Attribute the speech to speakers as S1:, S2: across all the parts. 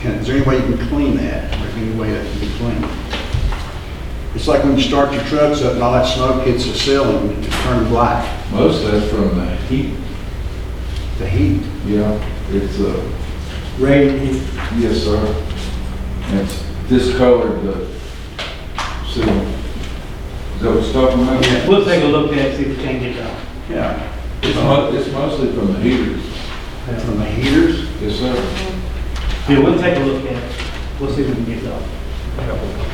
S1: Can- Is there any way you can clean that, or any way that can be cleaned? It's like when you start your trucks up and all that smoke hits the ceiling, it turns black,
S2: Most of that's from the heat,
S1: the heat.
S2: yeah, it's, uh,
S3: Rain,
S2: yes, sir. It's discolored the ceiling. Is that what it's talking about?
S3: we'll take a look at it, see if we can get it out.
S1: Yeah.
S2: It's mo, it's mostly from the heaters,
S1: From the heaters?
S2: yes, sir.
S3: Yeah, we'll take a look at it, we'll see if we can get it out.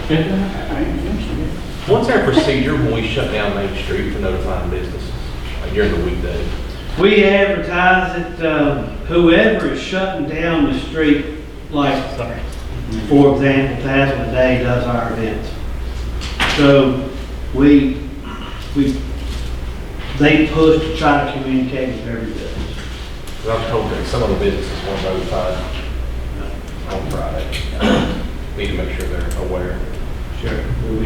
S4: And
S1: I ain't finished yet.
S4: What's our procedure when we shut down Main Street for notifying businesses like during the weekday?
S3: We advertise it, um, whoever is shutting down the street, like, for example, Thousand a Day does our events. So we, we, they push to try to communicate with every business.
S4: 'Cause I was told that some of the businesses weren't notified on Friday. Need to make sure they're aware.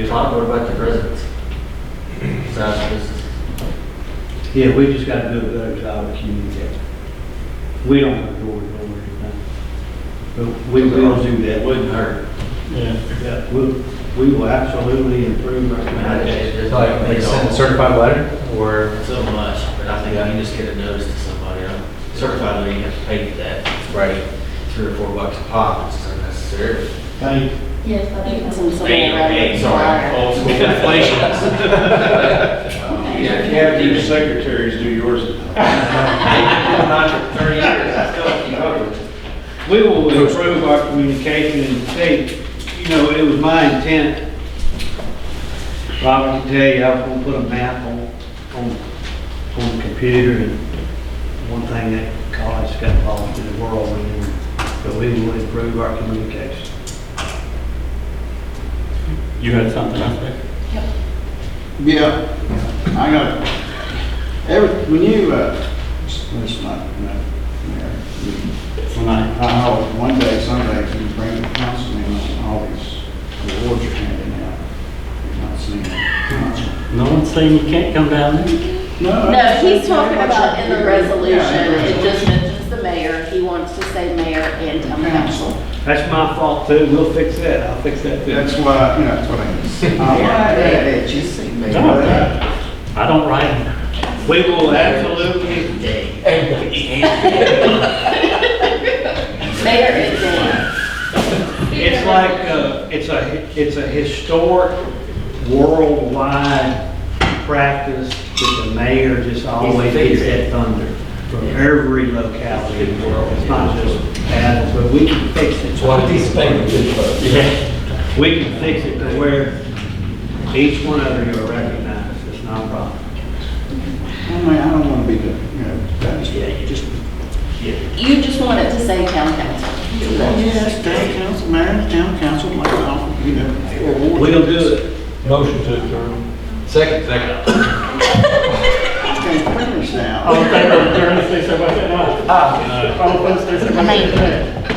S5: Todd, what about the residents? Besides business?
S3: Yeah, we just gotta do a better job of communicating. We don't have door to door or anything. But we will do that.
S5: Wouldn't hurt.
S3: Yeah, we, we will absolutely improve our
S5: I mean,
S3: communication.
S5: it- it's like,
S4: Like
S5: it's
S4: send a
S5: so
S4: certified letter or?
S5: so much, but I think I can just get a notice to somebody, I'm certified that you have to pay for that,
S4: Right.
S5: three or four bucks a pop, it's unnecessary.
S3: Thank
S6: Yes,
S7: You
S6: but I
S7: can
S6: think
S7: send somebody around.
S5: Hey, hey, sorry, old school inflation. Yeah,
S1: Yeah, your secretaries do yours.
S5: I'm not for thirty years, I still have to keep up with it.
S3: We will improve our communication and say, you know, it was my intent, Robert, to tell you, I was gonna put a map on, on, on the computer and one thing that college got lost in the world, and but we will improve our communication.
S8: You had something else, Rick?
S1: Yeah, I got, every, when you, uh, it's not, no, yeah, you- when I, I, always- one day, someday, if you bring the council in, all these awards are handing out. You're not seeing it.
S8: No one's saying you can't come down there.
S6: No, he's talking about in the resolution,
S1: Yeah, in the
S6: it just
S1: resolution.
S6: mentions the mayor, he wants to say mayor and town council.
S1: Council,
S3: That's my fault too, we'll fix that, I'll fix that too.
S1: that's why, you know, that's what I mean. Uh, yeah, yeah,
S5: you see me.
S8: No, I I don't write.
S3: We will absolutely,
S6: Mayor and town.
S3: it's like, uh, it's a, it's a historic worldwide practice that the mayor just always gets that thunder from every locality in the world. It's not just Athens, but we can fix it. Yeah, we can fix it to where each one of you are recognized, it's not a problem.
S1: I mean, I don't wanna be the, you know, that's,
S3: Yeah, you just.
S6: You just want it to say town council.
S1: yes, town council, mayor, town council, like, I'll, you know, awards.
S3: We'll do it.
S8: Motion to adjourn.
S4: Second, second.
S1: Okay, finish now.
S3: Oh,
S8: All in favor of adjourn, say so by saying aye. All opposed, say so by saying nay.